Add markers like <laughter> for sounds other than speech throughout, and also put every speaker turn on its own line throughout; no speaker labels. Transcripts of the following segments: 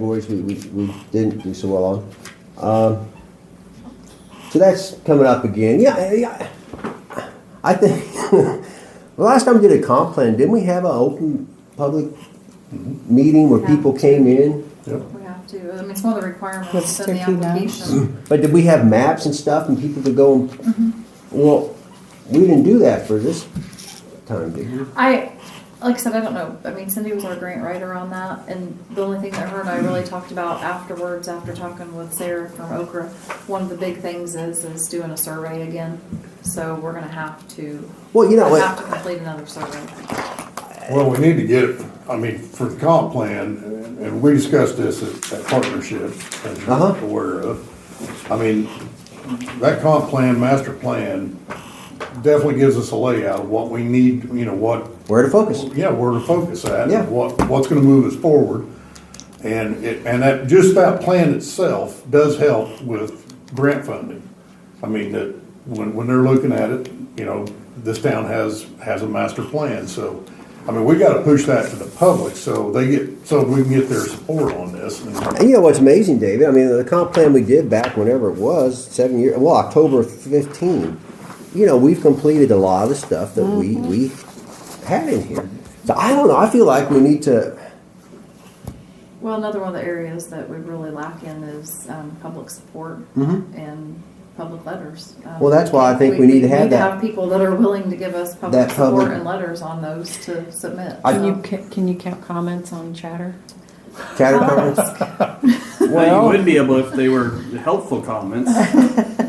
categories we, we, we didn't do so well on. Um, so that's coming up again. Yeah, yeah. I think <laughs> the last time we did a comp plan, didn't we have an open public meeting where people came in?
Yep.
We have to, I mean, it's one of the requirements
With
in the
sticky notes.
<clears throat>
application.
But did we have maps and stuff and people could go and, well, we didn't do that for this time, did we?
I, like I said, I don't know, I mean, Cindy was our grant writer on that, and the only thing that her and I really talked about afterwards, after talking with Sarah from Okra, one of the big things is, is doing a survey again, so we're gonna have to,
Well, you know,
have to
what?
complete another survey.
Well, we need to get, I mean, for the comp plan, and- and we discussed this at, at partnership, as
Uh-huh.
you're aware of. I mean, that comp plan, master plan, definitely gives us a layout of what we need, you know, what,
where to focus.
yeah, where to focus at.
Yeah.
What, what's gonna move us forward. And it, and that, just that plan itself does help with grant funding. I mean, that, when, when they're looking at it, you know, this town has, has a master plan, so, I mean, we gotta push that to the public, so they get, so we can get their support on this. And
And you know what's amazing, David? I mean, the comp plan we did back whenever it was, seven years, well, October 15, you know, we've completed a lot of the stuff that
Mm-hmm.
we, we had in here. So I don't know. I feel like we need to,
Well, another one of the areas that we really lack in is um, public support and public letters. Um,
Mm-hmm. Well, that's why I think we need to have that.
people that are willing to give us public
That
support
public-
and letters on those to submit.
I-
Can
So-
you, ca- can you count comments on chatter?
<laughs>
categorize.
Well, you
Well-
would be able if they were helpful comments.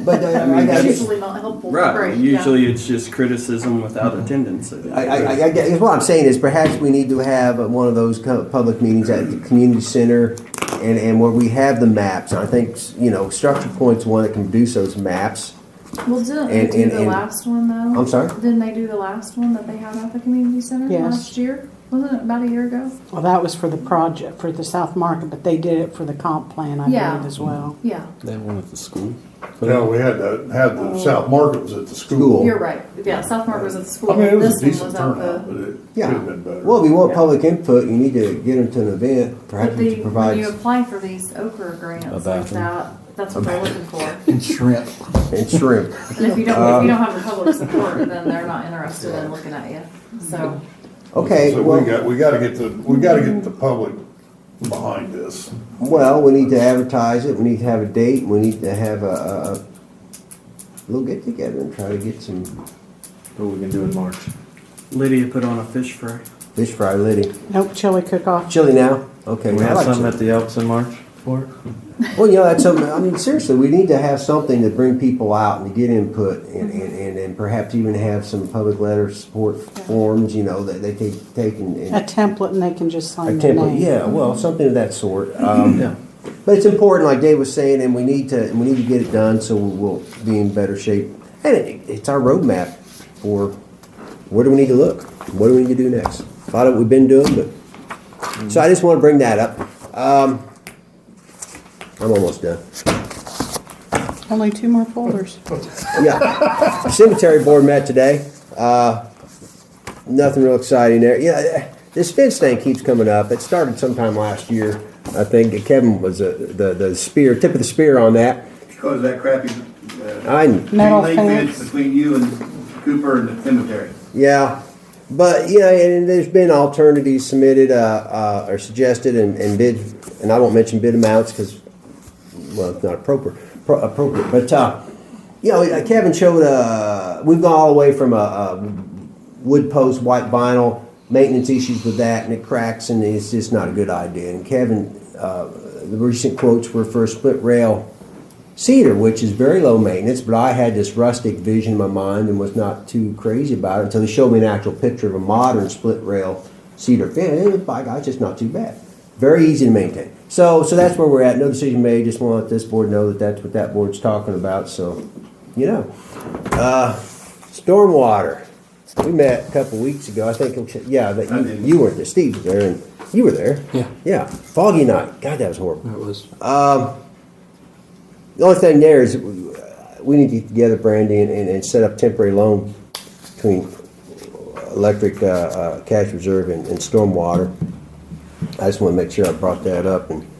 But uh, I,
mean,
got-
It's
that's-
usually not helpful.
Right.
Great, yeah.
Usually it's just criticism without a tendency.
I, I, I, I guess what I'm saying is perhaps we need to have one of those co- public meetings at the community center and, and where we have the maps. I think, you know, Structure Point's one that can produce those maps.
Well,
And-
didn't they do
and-
the
and-
last one though?
I'm sorry?
Didn't they do the last one that they had at the community center
Yes.
last year? Wasn't it about a year ago?
Well, that was for the project, for the South Market, but they did it for the comp plan, I
Yeah.
believe, as well.
Yeah,
That one at the school?
now we had to have
Oh.
the South Market was at the
School.
school.
you're right. Yeah, South Mark was at the school.
I mean, it was a
this one
decent
was at
turnout, but
the.
it could
Yeah.
have been better.
Well, if you want public input, you need to get them to an event, perhaps
But
we
the,
should
when
provide
you apply for these Okra grants like
bathroom.
that, that's what they're looking
<laughs>
for.
Shrimp.
and shrimp.
And if you don't, if you don't have the public support, then they're not interested in looking at you, so.
Okay,
So we
well,
got, we gotta get the, we gotta get the public behind this.
well, we need to advertise it, we need to have a date, we need to have a, a a little get together and try to get some
What we can do in March?
Lydia put on a fish fry.
fish fry litty.
Nope, chili cook-off.
Chili now? Okay.
Can we
I
have
like
something
chili.
at the Elks in March for it?
Well, you know, that's something, I mean, seriously, we need to have something to bring people out and to get input and, and, and, and perhaps even have some public letter support forms, you know, that they can take and. and-
A template and they can just
a
sign their
template,
name.
yeah, well, something of that sort. Um,
Yeah.
But it's important, like Dave was saying, and we need to, we need to get it done so we'll be in better shape. And it, it's our roadmap for where do we need to look? What do we need to do next? A lot of what we've been doing, but, so I just want to bring that up. Um, I'm almost done.
Only two more folders.
Yeah. Cemetery board met today. Uh, nothing real exciting there. Yeah, uh, this fence thing keeps coming up. It started sometime last year. I think Kevin was uh, the, the spear, tip of the spear on that.
Because of that crappy, uh,
I,
Metal
chain link
fence.
fence between you and Cooper and the cemetery.
yeah. But, you know, and there's been alternatives submitted, uh, uh, or suggested and, and bid, and I won't mention bid amounts because, well, it's not appropriate, pro- appropriate, but, uh, you know, Kevin showed, uh, we've gone all the way from a, a wood post, white vinyl, maintenance issues with that, and it cracks, and it's just not a good idea. And Kevin, uh, the recent quotes were for a split rail cedar, which is very low maintenance, but I had this rustic vision in my mind and was not too crazy about it until he showed me an actual picture of a modern split rail cedar fence. And by God, ah, it's just not too bad. Very easy to maintain. So, so that's where we're at. No decision made. Just want to let this board know that that's what that board's talking about. So, you know. uh, Stormwater. We met a couple weeks ago. I think, it was- yeah, that
I
you,
didn't.
you weren't there. Steve was there, and you were there.
Yeah.
Yeah. Foggy night. God, that was horrible.
That was.
The only thing there is uh, we need to get together, Brandy, and, and, and set up temporary loan between electric uh, uh, cash reserve and, and stormwater. I just want to make sure I brought that up and